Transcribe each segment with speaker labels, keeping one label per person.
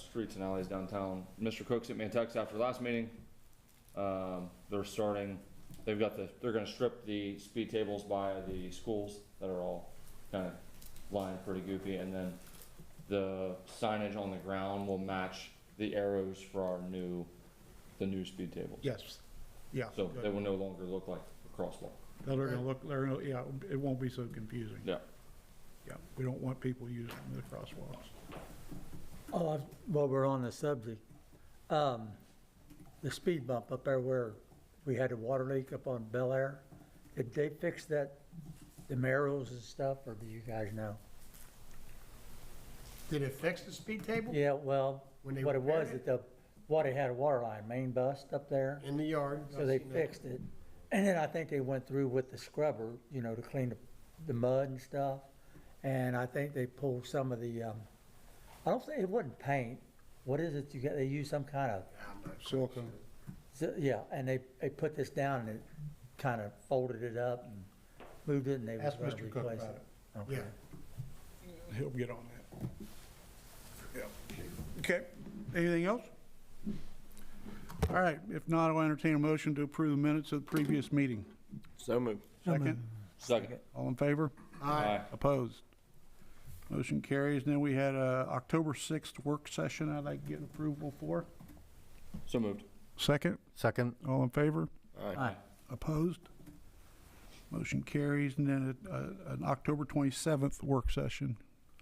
Speaker 1: streets and alleys downtown. Mr. Cook sent me a text after last meeting. Um, they're starting, they've got the, they're gonna strip the speed tables by the schools that are all kind of lined pretty goopy, and then the signage on the ground will match the arrows for our new, the new speed tables.
Speaker 2: Yes, yeah.
Speaker 1: So they
Speaker 2: good.
Speaker 1: will no longer look like a crosswalk.
Speaker 2: They're gonna look, they're gonna, yeah, it won't be so confusing.
Speaker 1: Yeah.
Speaker 2: Yeah, we don't want people using the crosswalks.
Speaker 3: Oh, I- while we're on the subject, um, the speed bump up there where we had a water leak up on Bel Air, did they fix that, the marrows and stuff, or do you guys know?
Speaker 4: Did it fix the speed table?
Speaker 3: Yeah, well,
Speaker 4: When they
Speaker 3: what it was,
Speaker 4: repaired
Speaker 3: that the water had a water line, main bust up there,
Speaker 4: In the yard?
Speaker 3: so they fixed it. And then I think they went through with the scrubber, you know, to clean the, the mud and stuff. And I think they pulled some of the, um, I don't think, it wasn't paint. What is it you got, they use some kind of
Speaker 4: I'm not sure.
Speaker 2: Silicone.
Speaker 3: So, yeah, and they, they put this down and it kind of folded it up and moved it and they was
Speaker 2: Ask
Speaker 3: going to
Speaker 2: Mr. Cook
Speaker 3: replace
Speaker 2: about
Speaker 3: it.
Speaker 2: it.
Speaker 3: Okay.
Speaker 4: Yeah,
Speaker 2: He'll get on that. Yeah. Okay, anything else? All right, if not, I'll entertain a motion to approve the minutes of the previous meeting.
Speaker 5: So moved.
Speaker 2: Second,
Speaker 1: Second.
Speaker 2: all in favor?
Speaker 1: Aye.
Speaker 2: Opposed? Motion carries. And then we had a October 6th work session I'd like to get approval for.
Speaker 1: So moved.
Speaker 2: Second,
Speaker 6: Second,
Speaker 2: all in favor?
Speaker 3: Aye.
Speaker 2: Opposed? Motion carries. And then a- a- an October 27th work session.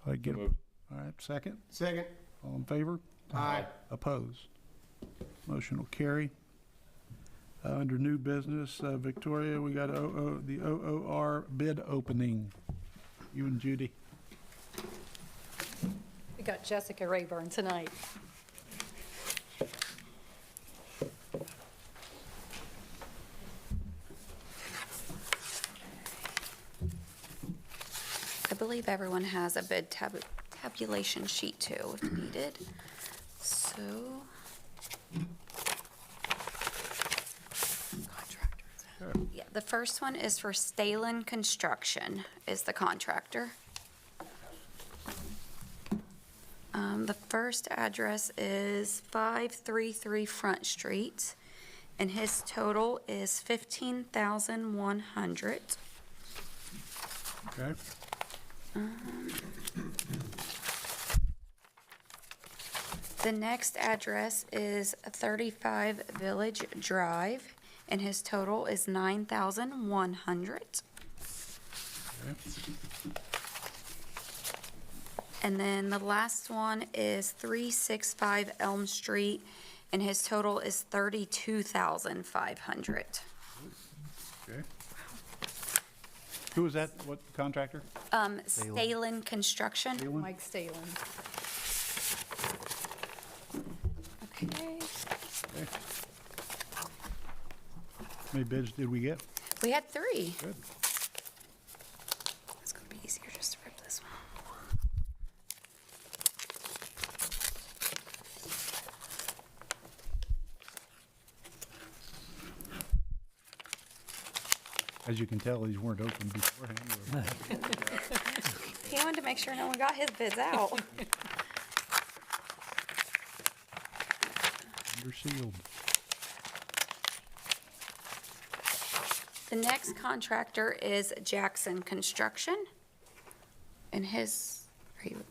Speaker 2: I
Speaker 1: So
Speaker 2: get, all
Speaker 1: moved.
Speaker 2: right, second,
Speaker 4: second,
Speaker 2: all in favor?
Speaker 4: aye,
Speaker 2: Opposed? Motion will carry. Uh, Under new business, uh, Victoria, we got O- O- the OOR bid opening. You and Judy.
Speaker 7: We got Jessica Rayburn tonight.
Speaker 8: I believe everyone has a bid tab- tabulation sheet too, if needed. So. Contractors. Yeah, the first one is for Stalen Construction is the contractor. Um, The first address is 533 Front Street, and his total is 15,100.
Speaker 2: Okay.
Speaker 8: The next address is 35 Village Drive, and his total is 9,100. And then the last one is 365 Elm Street, and his total is 32,500.
Speaker 2: Okay. Who was that? What contractor?
Speaker 8: Um, Stalen Construction.
Speaker 7: Mike Stalen.
Speaker 8: Okay.
Speaker 2: How many bids did we get?
Speaker 8: We had three.
Speaker 2: Good.
Speaker 8: It's gonna be easier just to rip this one.
Speaker 2: As you can tell, these weren't open beforehand.
Speaker 8: He wanted to make sure no one got his bids out.
Speaker 2: Under sealed.
Speaker 8: The next contractor is Jackson Construction. And his, are you-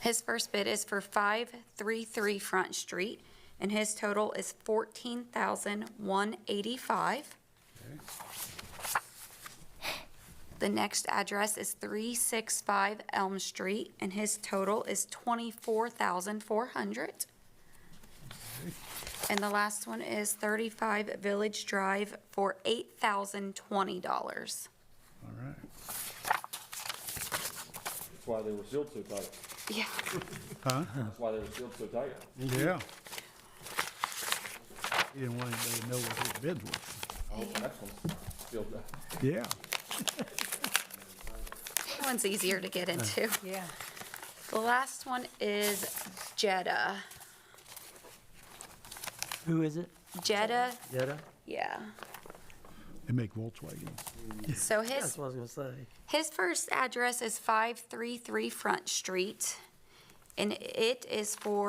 Speaker 8: his first bid is for 533 Front Street, and his total is 14185 The next address is 365 Elm Street, and his total is 24400 and the last one is 35 Village Drive for $8,020.
Speaker 2: All right.
Speaker 1: That's why they were sealed so tight.
Speaker 8: Yeah.
Speaker 2: Huh?
Speaker 1: That's why they were sealed so tight.
Speaker 2: Yeah. He didn't want anybody to know what his bids were.
Speaker 1: Oh, the next one's sealed up.
Speaker 2: Yeah.
Speaker 8: That one's easier to get into.
Speaker 7: Yeah.
Speaker 8: The last one is Jetta.
Speaker 3: Who is it?
Speaker 8: Jetta,
Speaker 3: Jetta?
Speaker 8: yeah.
Speaker 2: They make Volkswagen.
Speaker 8: So
Speaker 3: That's
Speaker 8: his,
Speaker 3: what I was going to say.
Speaker 8: his first address is 533 Front Street, And it is for